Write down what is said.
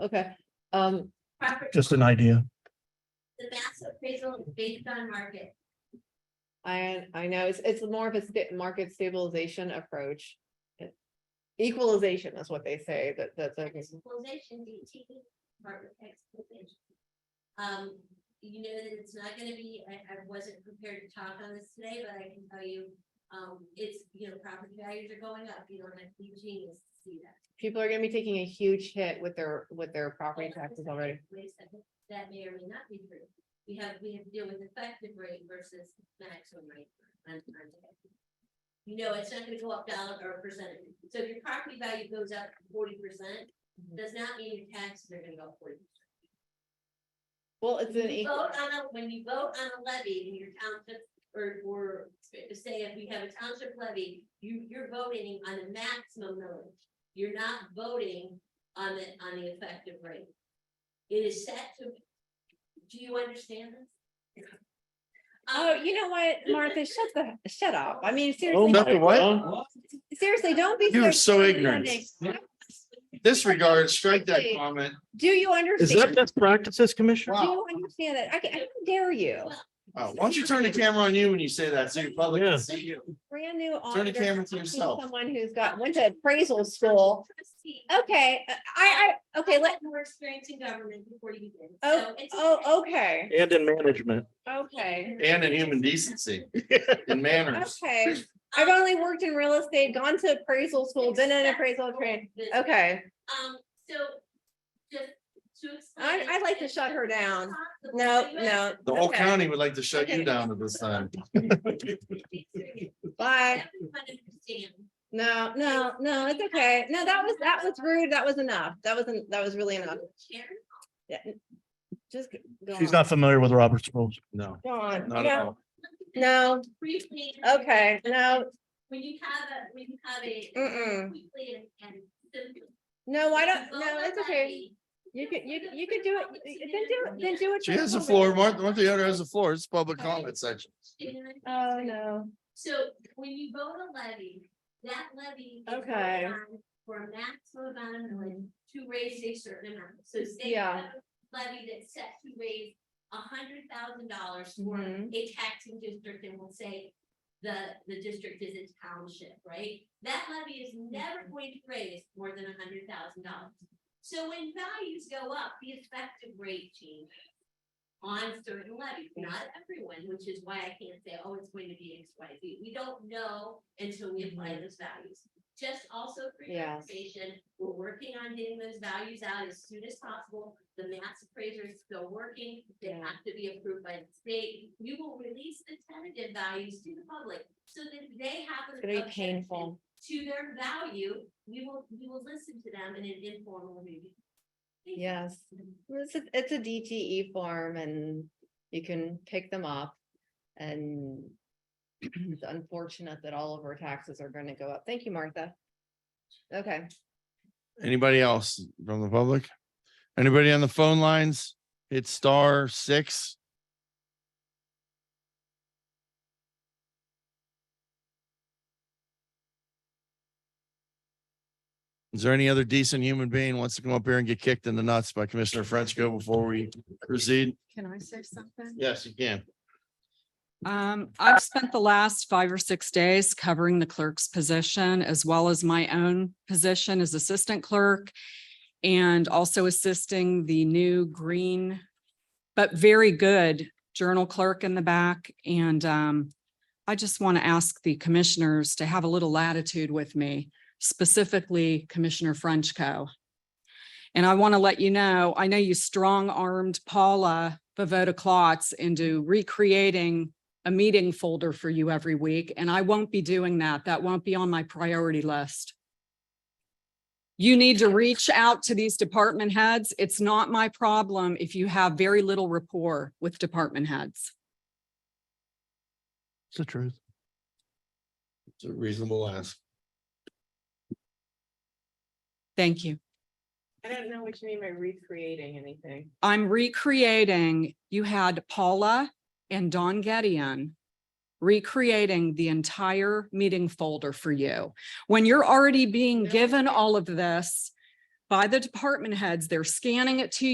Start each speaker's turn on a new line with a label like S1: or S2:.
S1: Okay, um,
S2: Property,
S3: just an idea.
S2: the mass appraisal is based on market.
S1: I, I know, it's, it's more of a sta- market stabilization approach. Equalization is what they say, that, that's like,
S2: Equalization, DT, market equalization. Um, you know that it's not gonna be, I, I wasn't prepared to talk on this today, but I can tell you, um, it's, you know, property values are going up, you don't have to be a genius to see that.
S1: people are gonna be taking a huge hit with their, with their property taxes already.
S2: Wait a second, that may or may not be true. We have, we have to deal with effective rate versus maximum rate on, on. debt. You know, it's not gonna go up dollar or percentage. So if your property value goes up forty percent,
S1: Mm-hmm.
S2: does not mean your taxes are gonna go forty.
S1: Well, it's an e-, equal,
S2: Vote on a, when you vote on a levy in your township, or, or say if we have a township levy, you, you're voting on a maximum millage. You're not voting on the, on the effective rate. It is set to, do you understand this? Um,
S4: Oh, you know what, Martha, shut the, shut up. I mean,
S5: Oh
S4: seriously,
S5: my God.
S4: seriously, don't be.
S5: You are so ignorant.
S4: condescending.
S5: Disregard, strike that comment.
S4: Do you
S3: Is that
S4: understand?
S3: best practices, Commissioner?
S4: Do
S5: Wow.
S4: you understand that? I can, how dare you?
S5: Uh, Why don't you turn the camera on you when you say that, so your public
S3: Yeah.
S5: can see you?
S4: Brand new.
S5: Turn the
S4: auditor,
S5: camera to
S4: talking
S5: yourself.
S4: Someone who's got, went to appraisal school.
S2: Trustee, uh,
S4: Okay, uh, I, I, okay, let,
S2: More experience in government before you begin.
S4: oh,
S2: So it's okay.
S4: oh, okay,
S3: And in management.
S4: okay,
S5: And in human decency and manners.
S4: okay. I've only worked in real estate, gone to appraisal school, been in appraisal training.
S2: Business.
S4: Okay,
S2: Um, so, just to
S4: I,
S2: explain.
S4: I'd like to shut her down.
S2: Possible.
S4: No,
S2: You
S4: no.
S2: have
S5: The whole
S4: okay,
S5: county would like to shut
S4: Okay.
S5: you down at this time.
S2: to be serious.
S4: Bye.
S2: Everyone understand.
S4: No, no, no, it's okay. No, that was, that was rude. That was enough. That wasn't, that was really enough.
S2: Sharon,
S4: Just go
S3: She's
S4: on.
S3: not familiar with Robert's rules.
S5: No,
S4: Go on.
S5: not at
S4: No,
S5: all.
S4: no,
S2: briefly.
S4: okay, no,
S2: When you have a, when you have a.
S4: Mm-mm.
S2: Quickly and- and simply.
S4: no, I don't,
S2: Vote
S4: no,
S2: on
S4: it's okay.
S2: levy.
S4: You could, you, you could do it, then do, it. then do it.
S5: She
S4: for
S5: has the
S4: COVID.
S5: floor, Martha, Martha Yoder has the floor. It's public comment section.
S2: And-
S4: Oh, no.
S2: So when you vote a levy, that levy. is voted
S4: Okay.
S2: on For a maximum amount of millage to raise a certain amount, so say. you
S4: Yeah.
S2: have a Levy that's set to raise a hundred thousand dollars for
S4: Mhm.
S2: a taxing district and we'll say. The, the district is a township, right? That levy is never going to raise more than a hundred thousand dollars. So when values go up, the effective rate changes on certain levies, not everyone, which is why I can't say, oh, it's going to be X, Y, Z. We don't know until we apply those values. Just also for your
S1: Yes.
S2: information, we're working on getting those values out as soon as possible. The mass appraiser is still working. They
S1: Yeah.
S2: have to be approved by the state. We will release the tentative values to the public so that they have.
S1: it's
S2: an
S1: gonna be
S2: objection
S1: painful.
S2: To their value, we will, we will listen to them in an informal meeting. Thank you.
S1: Yes, it's a, it's a DTE form and you can pick them up and it's unfortunate that all of our taxes are gonna go up. Thank you, Martha. Okay,
S5: Anybody else from the public? Anybody on the phone lines? Hit star six. Is there any other decent human being wants to come up here and get kicked in the nuts by Commissioner Frenchco before we proceed?
S6: Can I say something?
S5: Yes, you can.
S6: Um, I've spent the last five or six days covering the clerk's position as well as my own position as assistant clerk and also assisting the new green, but very good journal clerk in the back. And um, I just want to ask the commissioners to have a little latitude with me, specifically Commissioner Frenchco. And I want to let you know, I know you strong-armed Paula Bavota Klotz into recreating a meeting folder for you every week, and I won't be doing that. That won't be on my priority list. You need to reach out to these department heads. It's not my problem if you have very little rapport with department heads.
S3: It's the truth.
S5: It's a reasonable ask.
S6: Thank you.
S1: I don't know what you mean by recreating anything.
S6: I'm recreating, you had Paula and Don Gedeon recreating the entire meeting folder for you. When you're already being given all of this, by the department heads. They're scanning it to